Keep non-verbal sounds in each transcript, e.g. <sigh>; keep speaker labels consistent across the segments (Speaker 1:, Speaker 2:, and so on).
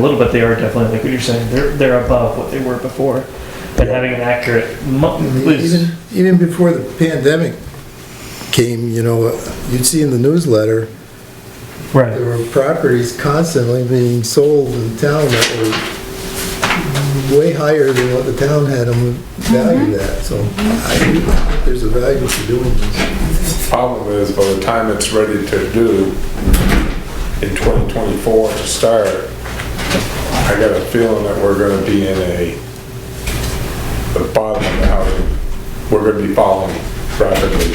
Speaker 1: a little bit, they are definitely, like what you're saying, they're, they're above what they were before. But having an accurate month
Speaker 2: I mean,
Speaker 1: is,
Speaker 2: Even, even before the pandemic came, you know, you'd see in the newsletter, there
Speaker 1: right,
Speaker 2: were properties constantly being sold in town that were way higher than what the town had them
Speaker 3: Mm-hmm.
Speaker 2: valued at, so I do think there's a value to doing this.
Speaker 4: Problem is, by the time it's ready to do, in 2024 to start, I got a feeling that we're gonna be in a, the bottom of the housing, we're gonna be falling rapidly.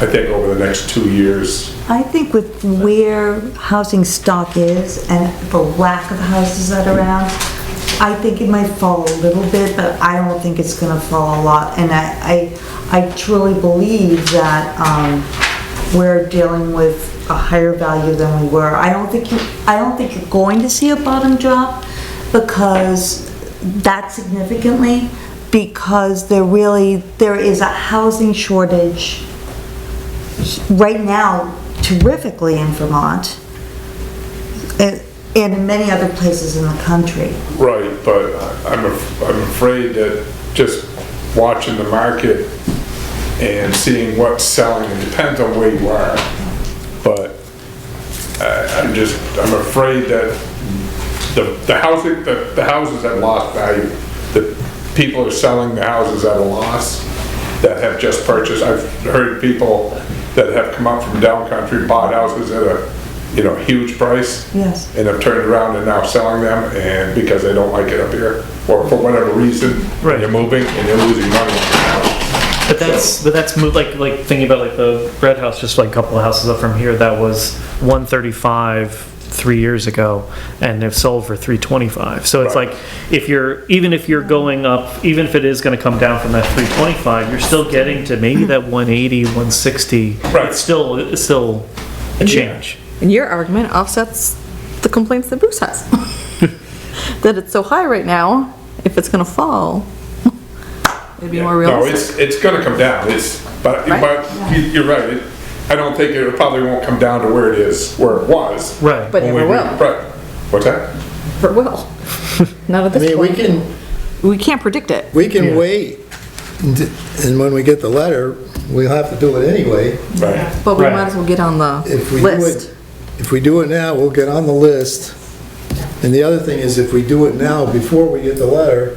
Speaker 4: I think over the next two years,
Speaker 5: I think with where housing stock is and the lack of houses that are around, I think it might fall a little bit, but I don't think it's gonna fall a lot. And I, I, I truly believe that, um, we're dealing with a higher value than we were. I don't think you, I don't think you're going to see a bottom drop because that significantly, because there really, there is a housing shortage right now terrifically in Vermont and and in many other places in the country.
Speaker 4: right, but I'm, af- I'm afraid that just watching the market and seeing what's selling, it depends on where you are, but I, I'm just, I'm afraid that the, the housing, the, the houses have lost value. The people are selling the houses at a loss that have just purchased. I've heard people that have come up from down country, bought houses at a, you know, huge price.
Speaker 5: Yes.
Speaker 4: And have turned around and now selling them and because they don't like it up here, or for whatever reason.
Speaker 1: Right.
Speaker 4: They're moving and they're losing money. on the house.
Speaker 1: but that's, but that's moved, like, like thinking about like the red house, just like a couple of houses up from here, that was one thirty-five three years ago, and they've sold for three twenty-five. So it's
Speaker 4: Right.
Speaker 1: like, if you're, even if you're going up, even if it is gonna come down from that three twenty-five, you're still getting to maybe that one eighty, one sixty.
Speaker 4: Right.
Speaker 1: It's still, it's still a change.
Speaker 3: And your argument offsets the complaints that
Speaker 2: <laughs>
Speaker 3: Bruce has. That it's so high right now, if it's gonna fall, <laughs> it'd be more
Speaker 4: No,
Speaker 3: realistic.
Speaker 4: it's, it's gonna come down, it's, but,
Speaker 3: Right?
Speaker 4: but you- you're right, It- I don't think it probably won't come down to where it is, where it was.
Speaker 1: Right.
Speaker 3: But it
Speaker 4: when we
Speaker 3: never
Speaker 4: re-
Speaker 3: will,
Speaker 4: Right, what's that?
Speaker 2: <laughs>
Speaker 3: it will. Not at
Speaker 2: I
Speaker 3: this
Speaker 2: mean, we
Speaker 3: point.
Speaker 2: can,
Speaker 3: We can't predict it.
Speaker 2: we can wait, and- and when we get the letter, we'll have to do it anyway.
Speaker 4: Right.
Speaker 3: But we
Speaker 1: Right.
Speaker 3: might as well get on the
Speaker 2: If we do
Speaker 3: list.
Speaker 2: it, if we do it now, we'll get on the list. And the other thing is, if we do it now, before we get the letter,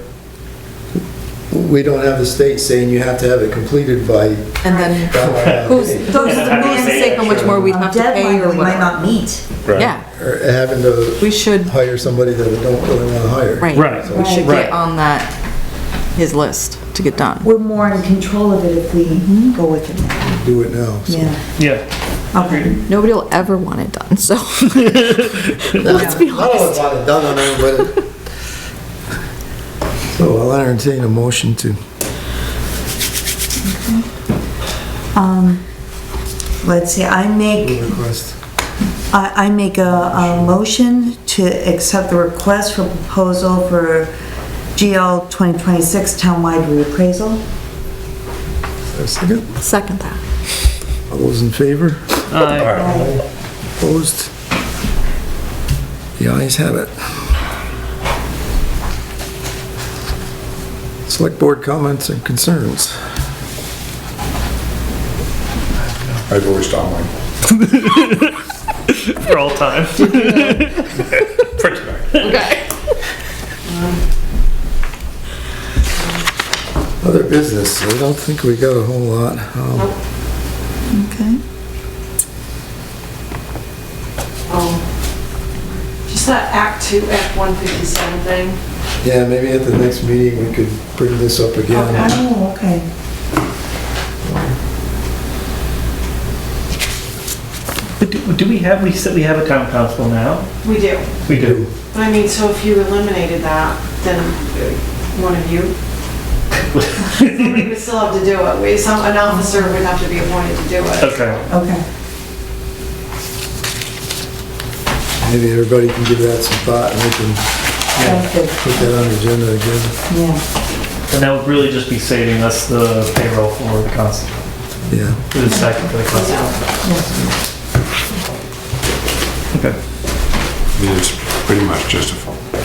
Speaker 2: we don't have the state saying you have to have it completed by.
Speaker 3: <laughs> And then who's,
Speaker 2: Or
Speaker 3: who's the man saying how much more we have to pay
Speaker 5: Deadline
Speaker 3: or
Speaker 5: we might
Speaker 3: whatever?
Speaker 5: not meet.
Speaker 4: Right.
Speaker 3: Yeah,
Speaker 2: having to
Speaker 3: we should,
Speaker 2: hire somebody that we don't really want to hire.
Speaker 3: right.
Speaker 1: Right.
Speaker 3: We should
Speaker 1: Right.
Speaker 3: get on that, his list to get done.
Speaker 5: We're more in control of it if we
Speaker 3: Mm-hmm.
Speaker 5: go with it now.
Speaker 2: Do it now. so.
Speaker 5: Yeah.
Speaker 1: Yeah,
Speaker 5: Okay.
Speaker 3: Nobody will ever want it done, so. <laughs> Let's be
Speaker 2: I don't
Speaker 3: honest.
Speaker 2: want it done on it,
Speaker 3: <laughs>
Speaker 2: but. So I'll entertain a motion to,
Speaker 5: Um, let's see, I make
Speaker 2: request.
Speaker 5: I, I make a, a motion to accept the request for proposal for GL 2026 townwide reappraisal.
Speaker 2: A second.
Speaker 3: Second that.
Speaker 2: All those in favor?
Speaker 1: Aye.
Speaker 2: Opposed? The ayes have it. Select board comments and concerns.
Speaker 4: I voiced all mine
Speaker 1: for all <laughs> time.
Speaker 4: for tonight.
Speaker 3: Okay.
Speaker 2: Other business, I don't think we got a whole lot. Um,
Speaker 5: Okay.
Speaker 6: Um, Just that Act Two, Act one fifty-seven thing.
Speaker 2: Yeah, maybe at the next meeting, we could bring this up again.
Speaker 5: Oh, okay.
Speaker 1: But do, do we have, we said we have a town council now?
Speaker 6: We do.
Speaker 1: We do.
Speaker 6: But I mean, so if you eliminated that, then uh, one of you. Somebody would still have to do it. We, some, an officer would have to be appointed to do it.
Speaker 1: Okay.
Speaker 5: Okay.
Speaker 2: Maybe everybody can give that some thought, and we can
Speaker 5: Sounds good.
Speaker 2: put that on the agenda again.
Speaker 5: Yeah.
Speaker 1: And that would really just be saving us the payroll for the constable,
Speaker 2: Yeah.
Speaker 1: for the second for the constable.
Speaker 4: We just pretty much just a phone.